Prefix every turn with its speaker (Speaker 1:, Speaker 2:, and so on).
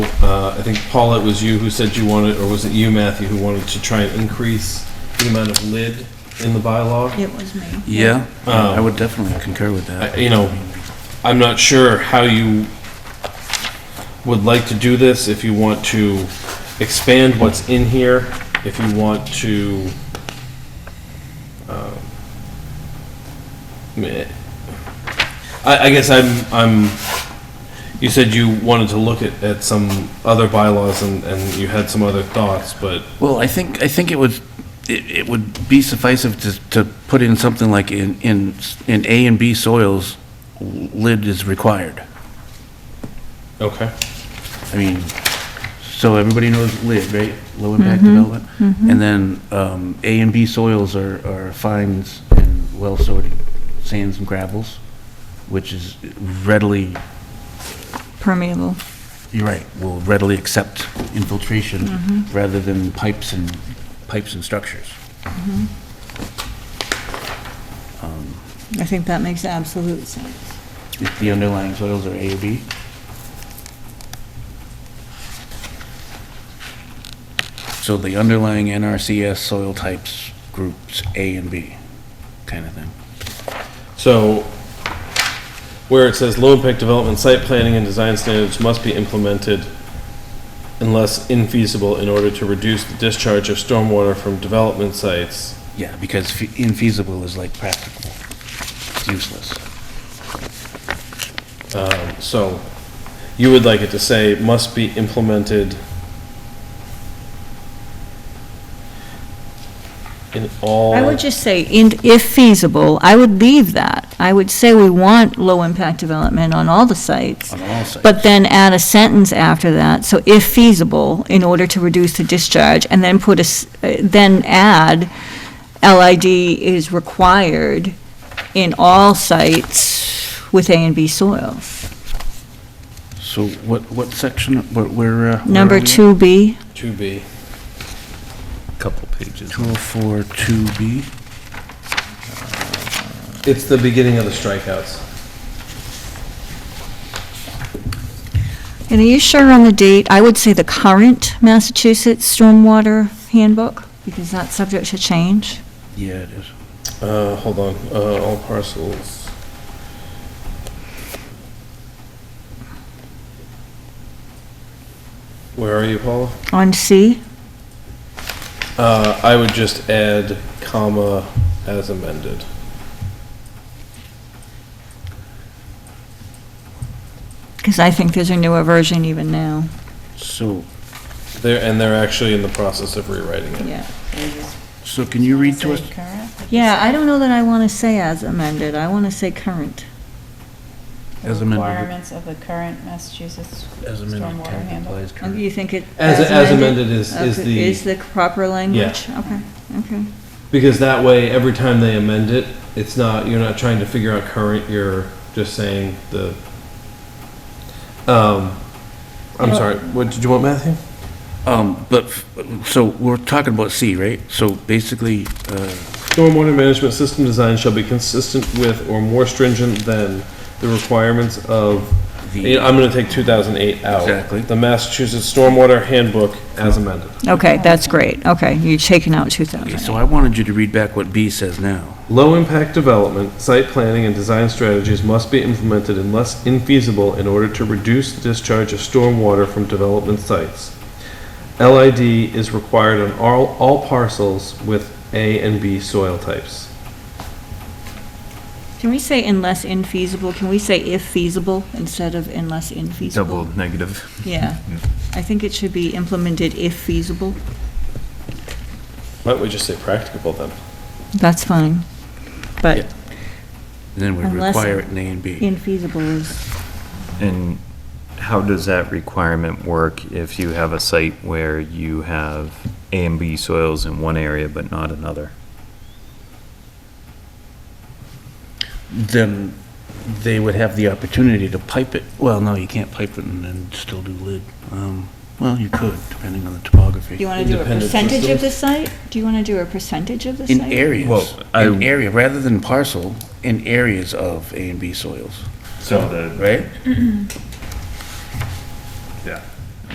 Speaker 1: uh, I think Paula, it was you who said you wanted, or was it you, Matthew, who wanted to try and increase the amount of lid in the bylaw?
Speaker 2: It was me.
Speaker 3: Yeah, I would definitely concur with
Speaker 1: I-
Speaker 3: that.
Speaker 1: you know, I'm not sure how you would like to do this, if you want to expand what's in here, if you want to, um, meh. I, I guess I'm, I'm, you said you wanted to look at, at some other bylaws and, and you had some other thoughts, but,
Speaker 3: Well, I think, I think it would, it it would be sufficient to, to put in something like in, in, in A and B soils, lid is required.
Speaker 1: okay.
Speaker 3: I mean, so everybody knows lid, right? Low impact development. And then um, A and B soils are, are fines and well sorted sands and gravels, which is readily,
Speaker 2: Permeable.
Speaker 3: you're right, will readily accept infiltration
Speaker 2: Mm-hmm.
Speaker 3: rather than pipes and, pipes and structures.
Speaker 2: I think that makes absolute sense.
Speaker 3: If the underlying soils are A or B. So the underlying NRCS soil types groups A and B, kind of thing.
Speaker 1: So, where it says low impact development, site planning and design standards must be implemented unless infeasible in order to reduce the discharge of stormwater from development sites.
Speaker 3: Yeah, because fe- infeasible is like practical, It's useless.
Speaker 1: So, you would like it to say must be implemented in all.
Speaker 2: I would just say, in- if feasible, I would leave that. I would say we want low-impact development on all the sites.
Speaker 3: On all sites.
Speaker 2: But then add a sentence after that, so if feasible, in order to reduce the discharge, and then put a, s- uh, then add, LID is required in all sites with A and B soils.
Speaker 3: So what, what section, where, where? uh, where are
Speaker 2: Number
Speaker 3: we?
Speaker 2: 2B,
Speaker 1: To be.
Speaker 4: Couple pages.
Speaker 3: 204 2B.
Speaker 1: It's the beginning of the strikeouts.
Speaker 2: and are you sure on the date? I would say the current Massachusetts Stormwater Handbook, because that's subject to change.
Speaker 3: Yeah, it is.
Speaker 1: Uh, hold on, uh, all parcels. Where are you, Paula?
Speaker 2: On C,
Speaker 1: Uh, I would just add comma as amended.
Speaker 2: because I think there's a newer version even now.
Speaker 3: So,
Speaker 1: They're, and they're actually in the process of rewriting it.
Speaker 2: Yeah.
Speaker 3: so can you read to us?
Speaker 2: Yeah, I don't know that I want to say as amended. I want to say current.
Speaker 3: As
Speaker 5: The
Speaker 3: amended.
Speaker 5: Requirements of the current Massachusetts
Speaker 3: As amended,
Speaker 5: stormwater
Speaker 3: current
Speaker 5: handbook.
Speaker 3: complies
Speaker 2: Oh,
Speaker 3: current.
Speaker 2: You think it?
Speaker 1: As- as amended is- is
Speaker 2: Okay,
Speaker 1: the-
Speaker 2: Is the proper language? Okay, okay.
Speaker 1: Because that way, every time they amend it, it's not, you're not trying to figure out current, you're just saying the, um, I'm sorry, what did you want, Matthew?
Speaker 3: Um, but, f- so we're talking about C, right? So basically, uh,
Speaker 1: Stormwater management system design shall be consistent with or more stringent than the requirements of,
Speaker 3: The-
Speaker 1: I'm gonna take two thousand eight out.
Speaker 3: Exactly.
Speaker 1: The Massachusetts Stormwater Handbook as amended.
Speaker 2: Okay, that's great. Okay, you're taking out
Speaker 3: okay,
Speaker 2: 2,000.
Speaker 3: so I wanted you to read back what B says now.
Speaker 1: Low-impact development, site planning, and design strategies must be implemented unless infeasible in order to reduce the discharge of stormwater from development sites. LID is required on all, all parcels with A and B soil types.
Speaker 2: Can we say unless infeasible? Can we say if feasible instead of unless infeasible?
Speaker 4: Double negative.
Speaker 2: Yeah. I think it should be implemented if feasible.
Speaker 1: Why don't we just say practicable then?
Speaker 2: That's fine.
Speaker 3: Yeah.
Speaker 2: But
Speaker 3: And then we
Speaker 2: Unless-
Speaker 3: require it in A and B.
Speaker 2: infeasible is,
Speaker 4: And how does that requirement work if you have a site where you have A and B soils in one area but not another?
Speaker 3: Then they would have the opportunity to pipe it. Well, no, you can't pipe it and then still do lid. Um, well, you could, depending on the topography.
Speaker 2: you want to do a
Speaker 1: Independent
Speaker 2: percentage of
Speaker 1: systems?
Speaker 2: the site? Do you want to do a percentage of the site?
Speaker 3: In areas,
Speaker 4: Well, I-
Speaker 3: in area, rather than parcel, in areas of A and B soils,
Speaker 4: So the.
Speaker 3: right?